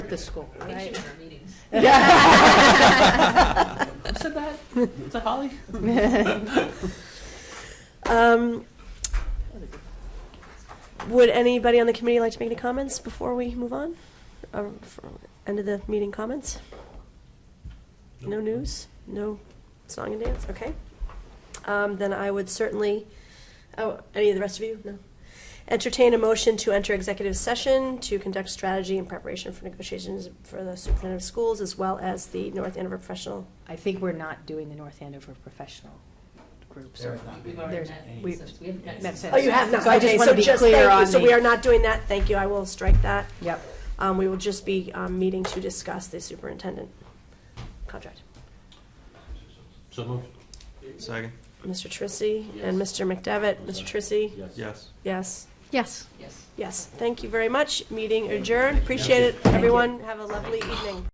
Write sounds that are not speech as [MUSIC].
the school, I think [LAUGHS] right? she's in our meetings. Who said that? Is that Holly? Um, would anybody on the committee like to make any comments before we move on? Or for- End of the meeting comments? No news? No song and dance? Okay. Um, then I would certainly, oh, any of the rest of you? No. Entertain a motion to enter executive session to conduct strategy in preparation for negotiations for the superintendent of schools as well as the North Andover Professional. I think we're not doing the North Andover professional group, so. We've already There's- met we've- since- we haven't met met since- since. Oh, you have not? So I just Okay, wanna be just clear thank you. on So the- we are not doing that. Thank you. I will strike that. Yep. Um, we will just be, um, meeting to discuss the superintendent contract. So moved. Second. Mr. Trissy and Yes. Mr. McDevitt. Mr. Trissy? Yes. Yes. Yes. Yes. Yes. Thank you very much. Meeting adjourned. Appreciate it, everyone. Have a lovely evening.